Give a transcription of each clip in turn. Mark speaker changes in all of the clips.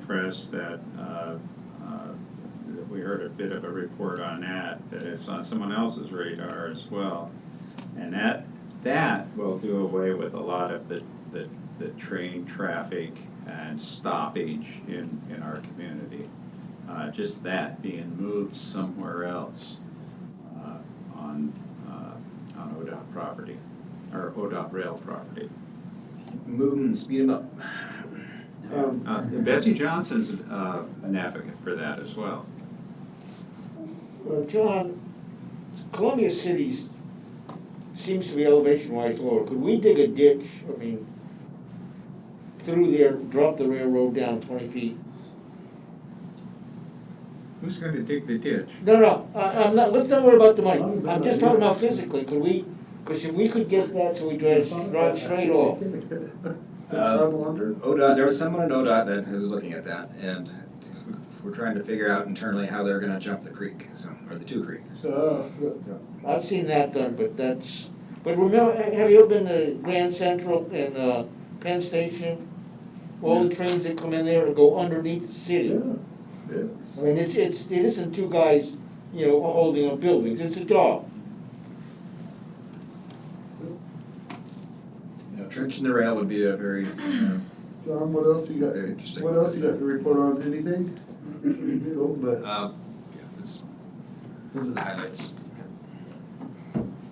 Speaker 1: notice that, uh, uh, that we heard a bit of a report on that, that it's on someone else's radar as well. And that, that will do away with a lot of the, the, the train traffic and stoppage in, in our community. Uh, just that being moved somewhere else, uh, on, uh, on ODOT property, or ODOT rail property.
Speaker 2: Moving, speed 'em up.
Speaker 3: Um,
Speaker 1: Uh, Bessie Johnson's uh, an advocate for that as well.
Speaker 3: well, John, Columbia City's seems to be elevation wise lower. Could we dig a ditch, I mean, through there, drop the railroad down twenty feet?
Speaker 1: Who's going to dig the ditch?
Speaker 3: No, no, I, I'm not, let's not worry about the money. I'm just talking about physically, could we, because if we could get that so we drive, drive straight off.
Speaker 4: Trouble under?
Speaker 2: uh, ODOT, there was someone at ODOT that was looking at that, and we're trying to figure out internally how they're gonna jump the creek, so, or the two creeks.
Speaker 4: So, uh,
Speaker 3: I've seen that done, but that's, but remember, ha- have you ever been to Grand Central and, uh, Penn Station? All the trains that come in there to go underneath the
Speaker 4: yeah,
Speaker 3: city.
Speaker 4: yeah.
Speaker 3: I mean, it's, it's, it isn't two guys, you know, holding a building, it's a dog.
Speaker 2: You know, trenching the rail would be a very, you know,
Speaker 4: John, what else you got,
Speaker 2: very interesting.
Speaker 4: what else you got to report on, anything? Little, but,
Speaker 2: Uh, yeah, that's- those are the highlights.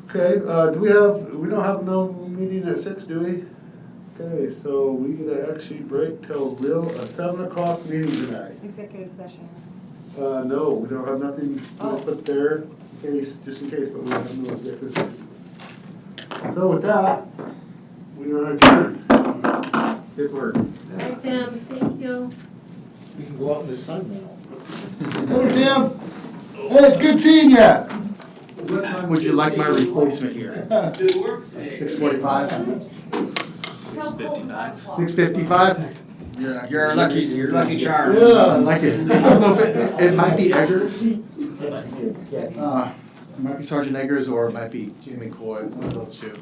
Speaker 4: okay, uh, do we have, we don't have no meeting at six, do we? Okay, so we gonna actually break till real, a seven o'clock meeting tonight.
Speaker 5: Executive session.
Speaker 4: Uh, no, we don't have nothing
Speaker 5: Oh.
Speaker 4: up there, in case, just in case, but we have no objective. So with that, we are adjourned.
Speaker 1: Good work.
Speaker 6: Hi, Tim, thank you.
Speaker 7: You can go out in the sun now.
Speaker 4: Hey, Tim, hey, it's good seeing ya.
Speaker 1: What time would you like my replacement here?
Speaker 4: Six forty-five,
Speaker 6: How cold is that clock?
Speaker 4: six fifty-five?
Speaker 2: You're, you're a lucky, you're a lucky charm.
Speaker 4: Yeah, I like it. I don't know if it, it might be Eggers. Uh, it might be Sergeant Eggers or it might be Jamie Coy, one of those two.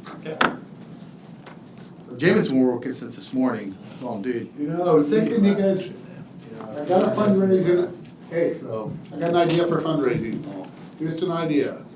Speaker 4: So Jamie's been working since this morning, long dude. You know, I was thinking you guys, I got a fundraiser, hey, so, I got an idea for fundraising. Here's an idea.